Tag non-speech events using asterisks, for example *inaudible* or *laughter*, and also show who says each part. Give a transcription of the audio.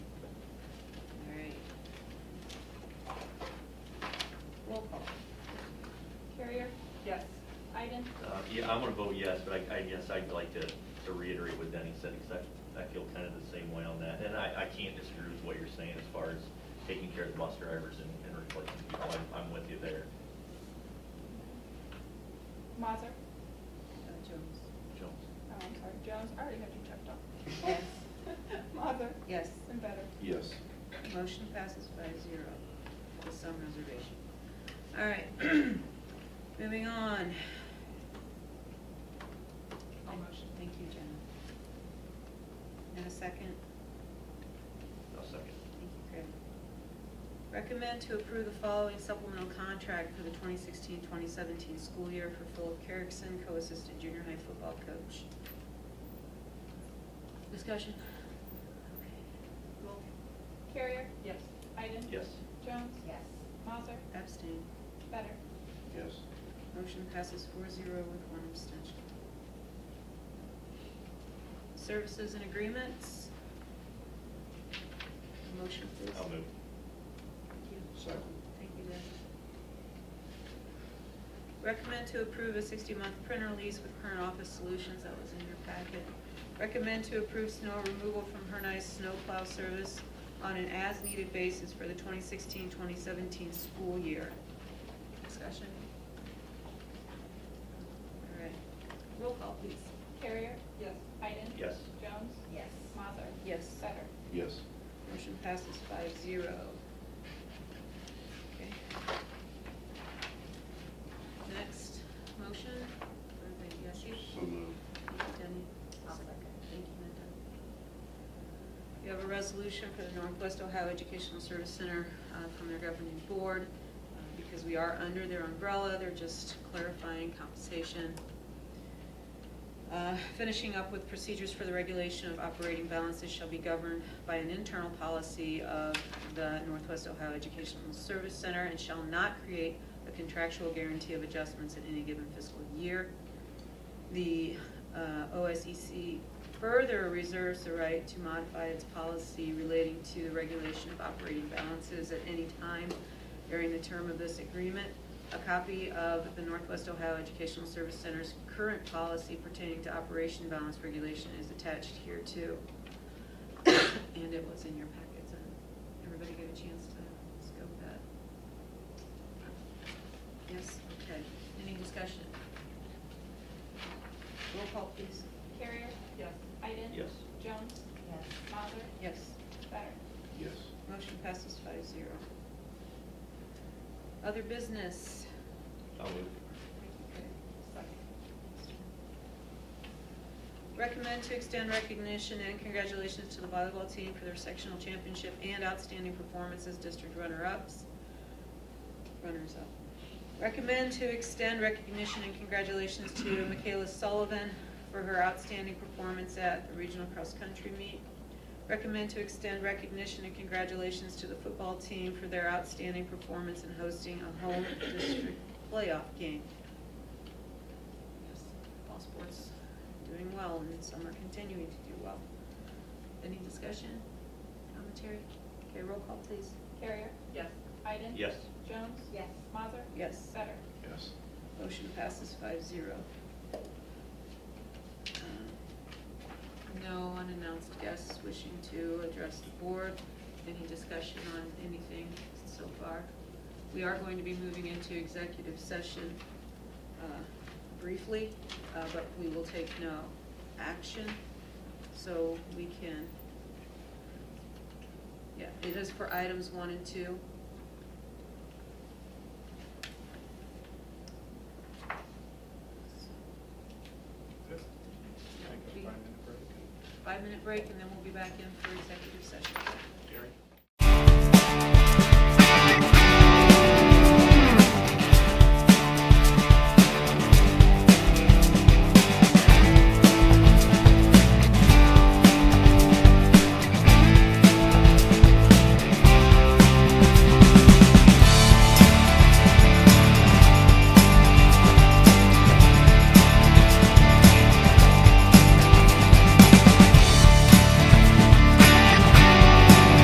Speaker 1: Uh, yeah, I'm gonna vote yes, but I, I guess I'd like to, to reiterate what Denny said, because I, I feel kind of the same way on that. And I, I can't disagree with what you're saying as far as taking care of the bus drivers and, and replacing people. I'm, I'm with you there.
Speaker 2: Mazzer?
Speaker 3: Uh, Jones.
Speaker 1: Jones?
Speaker 2: Oh, I'm sorry, Jones, I already had you checked off. *laughs*
Speaker 3: Yes.
Speaker 2: Mazzer?
Speaker 3: Yes,
Speaker 2: And Better?
Speaker 4: Yes.
Speaker 3: motion passes five zero with some reservation. All right, *clears throat* moving on.
Speaker 2: I'll motion.
Speaker 3: Thank you, Jenna. And a second,
Speaker 1: I'll second.
Speaker 3: thank you, Craig. Recommend to approve the following supplemental contract for the 2016-2017 school year for Philip Carrickson, co-assistant junior high football coach. Discussion? Okay. Roll.
Speaker 2: Carrier?
Speaker 5: Yes.
Speaker 2: Iden?
Speaker 1: Yes.
Speaker 2: Jones?
Speaker 5: Yes.
Speaker 2: Mazzer?
Speaker 3: Abstain.
Speaker 2: Better?
Speaker 4: Yes.
Speaker 3: Motion passes four zero with one abstention. Services and agreements. Motion, please.
Speaker 1: I'll move.
Speaker 3: Thank you.
Speaker 4: Second.
Speaker 3: Thank you, Deb. Recommend to approve a sixty-month printer lease with Current Office Solutions, that was in your packet. Recommend to approve snow removal from Hernice Snowplow Service on an as-needed basis for the 2016-2017 school year. Discussion? All right, roll call, please.
Speaker 2: Carrier? Yes. Iden?
Speaker 1: Yes.
Speaker 2: Jones?
Speaker 5: Yes.
Speaker 2: Mazzer?
Speaker 3: Yes.
Speaker 2: Better?
Speaker 4: Yes.
Speaker 3: Motion passes five zero. Okay. Next, motion, everybody, yes, you?
Speaker 4: So moved.
Speaker 3: Thank you, Denny.
Speaker 5: I'll second.
Speaker 3: Thank you, Linda. We have a resolution for the Northwest Ohio Educational Service Center uh, from their governing board, uh, because we are under their umbrella, they're just clarifying compensation. Uh, Finishing up with procedures for the regulation of operating balances shall be governed by an internal policy of the Northwest Ohio Educational Service Center and shall not create a contractual guarantee of adjustments in any given fiscal year. The uh, OSEC further reserves the right to modify its policy relating to the regulation of operating balances at any time during the term of this agreement. A copy of the Northwest Ohio Educational Service Center's current policy pertaining to operation balance regulation is attached here too. *coughs* And it was in your packets, and everybody get a chance to scope that. Yes, okay. Any discussion? Roll call, please.
Speaker 2: Carrier? Yes. Iden?
Speaker 1: Yes.
Speaker 2: Jones?
Speaker 5: Yes.
Speaker 2: Mazzer?
Speaker 3: Yes.
Speaker 2: Better?
Speaker 4: Yes.
Speaker 3: Motion passes five zero. Other business?
Speaker 1: I'll move.
Speaker 3: Recommend to extend recognition and congratulations to the volleyball team for their sectional championship and outstanding performances, district runner-ups, runners-up. Recommend to extend recognition and congratulations to Michaela Sullivan for her outstanding performance at the regional cross-country meet. Recommend to extend recognition and congratulations to the football team for their outstanding performance in hosting a home district playoff game. Yes, All sports doing well, and some are continuing to do well. Any discussion, commentary? Okay, roll call, please.
Speaker 2: Carrier?
Speaker 5: Yes.
Speaker 2: Iden?
Speaker 1: Yes.
Speaker 2: Jones?
Speaker 5: Yes.
Speaker 2: Mazzer?
Speaker 3: Yes.
Speaker 2: Better?
Speaker 4: Yes.
Speaker 3: Motion passes five zero. No unannounced guests wishing to address the board. Any discussion on anything so far? We are going to be moving into executive session uh, briefly, uh, but we will take no action, so we can, yeah, it is for items one and two.
Speaker 6: Take a five-minute break.
Speaker 3: Five-minute break, and then we'll be back in for executive session.